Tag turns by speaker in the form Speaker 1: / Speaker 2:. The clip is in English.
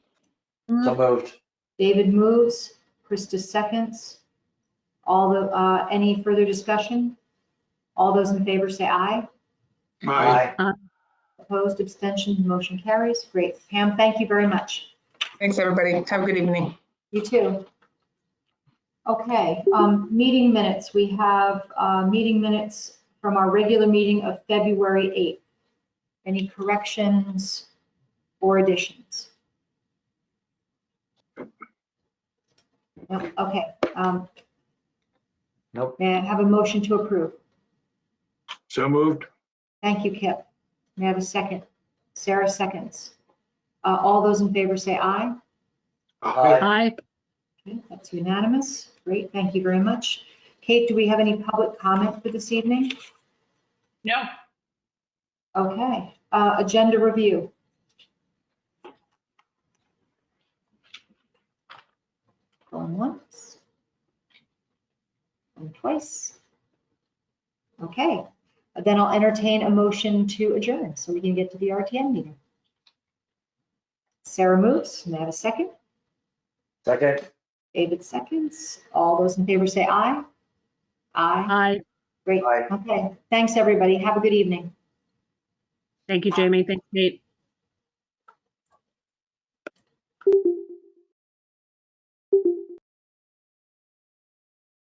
Speaker 1: So moved.
Speaker 2: David moves, Krista seconds. All the, uh, any further discussion? All those in favor say aye.
Speaker 1: Aye.
Speaker 2: Opposed, abstentions, motion carries. Great. Pam, thank you very much.
Speaker 3: Thanks, everybody. Have a good evening.
Speaker 2: You too. Okay, um, meeting minutes. We have, uh, meeting minutes from our regular meeting of February 8th. Any corrections or additions? No, Okay, um.
Speaker 1: Nope.
Speaker 2: May I have a motion to approve?
Speaker 4: So moved.
Speaker 2: Thank you, Kip. May I have a second? Sarah seconds. Uh, all those in favor say aye.
Speaker 1: Aye.
Speaker 5: Aye.
Speaker 2: Okay, That's unanimous. Great, thank you very much. Kate, do we have any public comment for this evening?
Speaker 3: No.
Speaker 2: Okay, uh, agenda review. Going once. And twice. Okay, then I'll entertain a motion to adjourn so we can get to the RTN meeting. Sarah moves. May I have a second?
Speaker 1: Second.
Speaker 2: David seconds. All those in favor say aye. Aye.
Speaker 5: Aye.
Speaker 2: Great.
Speaker 1: Aye.
Speaker 2: Okay. Thanks, everybody. Have a good evening.
Speaker 5: Thank you, Jamie. Thanks, Nate.